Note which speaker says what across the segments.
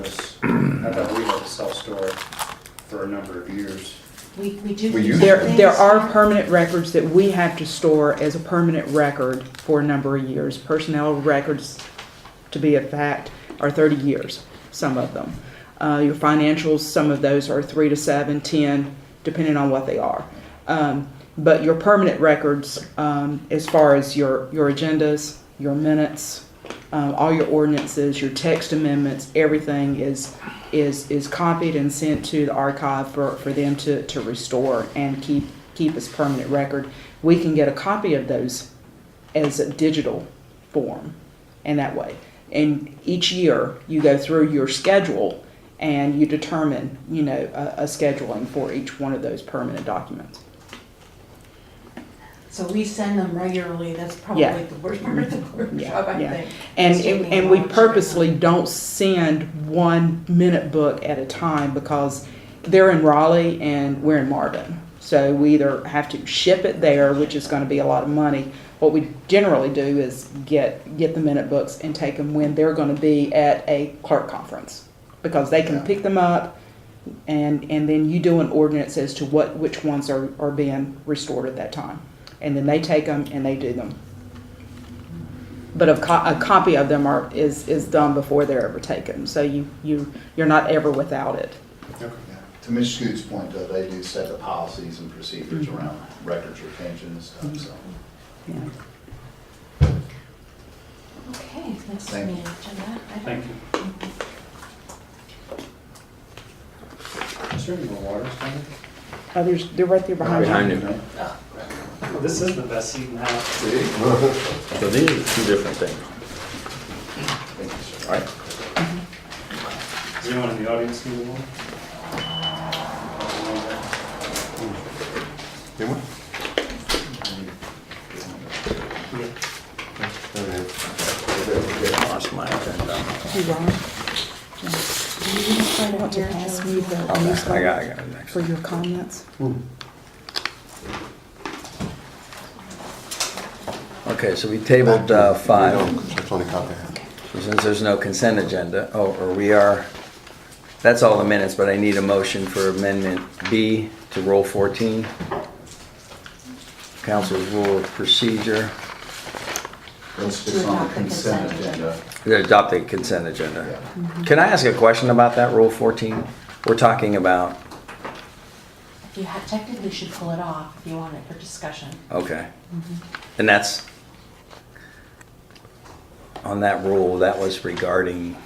Speaker 1: this, I thought we had a self-store for a number of years.
Speaker 2: We, we do.
Speaker 1: We use
Speaker 2: some
Speaker 3: There, there
Speaker 2: things.
Speaker 3: are permanent records that we have to store as a permanent record for a number of years. Personnel records, to be a fact, are thirty years, some of them. Uh, your financials, some of those are three to seven, ten, depending on what they are. Um, but your permanent records, um, as far as your, your agendas, your minutes, um, all your ordinances, your text amendments, everything is is is copied and sent to the archive for, for them to, to restore and keep keep as permanent record. We can get a copy of those as a digital form in that way. And each year you go through your schedule and you determine, you know, a, a scheduling for each one of those permanent documents.
Speaker 2: So we send them regularly, that's
Speaker 3: Yeah. Mm-hmm.
Speaker 2: probably the worst part of the workshop, I
Speaker 3: yeah.
Speaker 2: think.
Speaker 3: And,
Speaker 2: It's
Speaker 3: and,
Speaker 2: taking
Speaker 3: and we
Speaker 2: longer.
Speaker 3: purposely don't send one minute book at a time because they're in Raleigh and we're in Marvin. So we either have to ship it there, which is going to be a lot of money. What we generally do is get, get the minute books and take them when they're going to be at a clerk conference because they can pick them up and, and then you do an ordinance as to what, which ones are, are being restored at that time. And then they take them and they do them. But a, co- a copy of them are, is, is done before they're ever taken, so you, you, you're not ever without it.
Speaker 4: Yeah. To Ms. Scoot's point, though, they do set the policies and procedures around records retention and stuff, so.
Speaker 3: Yeah.
Speaker 2: Okay, that's
Speaker 4: Thank
Speaker 2: me,
Speaker 4: you.
Speaker 2: agenda. item.
Speaker 1: Thank you. Is there any more water standing?
Speaker 3: Oh, there's, they're right there behind you.
Speaker 5: Behind you.
Speaker 6: Oh. This is the best seat in the house.
Speaker 5: So these are two different things.
Speaker 4: Thank you, sir.
Speaker 5: All right.
Speaker 6: Does anyone in the audience need one?
Speaker 5: Lost my agenda.
Speaker 3: You wrong. Yeah. Want to pass me the
Speaker 5: I got, I
Speaker 3: newsletter
Speaker 5: got it next.
Speaker 3: for your comments?
Speaker 5: Okay, so we tabled uh, five.
Speaker 7: That's only copy I have.
Speaker 5: So Since there's no consent agenda, oh, or we are, that's all the minutes, but I need a motion for amendment B to roll 14. Council's rule of procedure,
Speaker 4: Let's just on the consent agenda.
Speaker 5: We adopt a consent agenda. Can I ask a question about that rule 14? We're talking about,
Speaker 2: If you have, technically should pull it off if you want it for discussion.
Speaker 5: okay. And that's, on that rule, that was regarding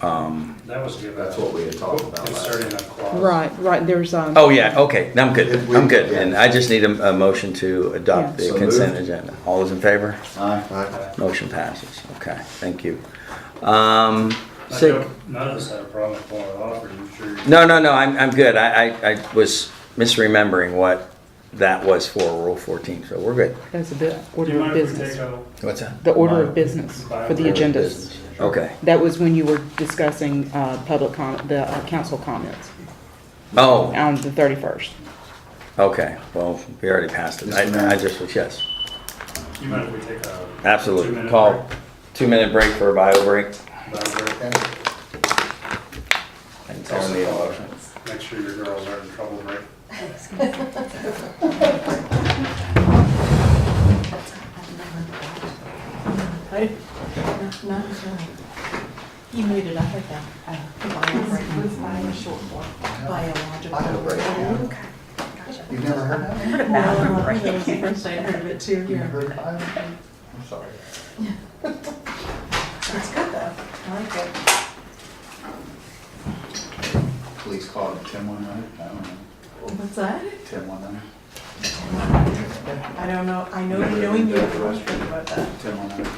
Speaker 6: That was good.
Speaker 4: That's what we had talked about last
Speaker 6: Inserting a clause.
Speaker 3: Right, right, there's, um.
Speaker 5: Oh, yeah, okay, I'm good,
Speaker 4: If we-
Speaker 5: I'm good, and I just need a, a motion to adopt
Speaker 3: Yeah.
Speaker 5: the
Speaker 4: So
Speaker 5: consent
Speaker 4: moved.
Speaker 5: agenda. All those in favor?
Speaker 4: Aye.
Speaker 7: Aye.
Speaker 5: Motion passes, okay, thank you. Um,
Speaker 6: I
Speaker 5: so-
Speaker 6: don't- None of us had a problem with pulling it off, are you sure?
Speaker 5: no, no, no, I'm, I'm good, I, I, I was misremembering what that was for, Rule fourteen, so we're good.
Speaker 3: That's the
Speaker 6: Do you
Speaker 3: order of
Speaker 6: mind if we take
Speaker 3: business,
Speaker 6: a?
Speaker 5: What's that?
Speaker 3: the order of business
Speaker 6: By
Speaker 3: for the
Speaker 6: order of
Speaker 3: agendas.
Speaker 5: Okay,
Speaker 3: That was when you were discussing, uh, public com, the uh, council comments
Speaker 5: oh,
Speaker 3: on the thirty-first.
Speaker 5: okay, well, we already passed it,
Speaker 4: Mr.
Speaker 5: I, I
Speaker 4: Mayor.
Speaker 5: just was, yes,
Speaker 6: Do you mind if we take a?
Speaker 5: absolutely.
Speaker 6: Two-minute
Speaker 5: Call, two-minute break for a bio break.
Speaker 6: break?
Speaker 5: And tell me all of it.
Speaker 6: Make sure your girls aren't in trouble, right?
Speaker 2: Right? No, no, it's all right. You made it up again.
Speaker 4: Bio break, yeah.
Speaker 2: Biological.
Speaker 4: You've never heard that?
Speaker 2: Heard of bio break? That was the first I heard of it too.
Speaker 4: You've never heard of bio break? I'm sorry.
Speaker 2: It's good though. I like it.
Speaker 4: Please call it ten one hundred, I don't know,
Speaker 2: What's that?
Speaker 4: ten one hundred,
Speaker 2: I don't know, I know you know you, I'm not sure about that.
Speaker 4: ten one hundred.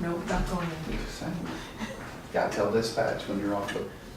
Speaker 2: No, not going in.
Speaker 4: Gotta tell dispatch when you're off the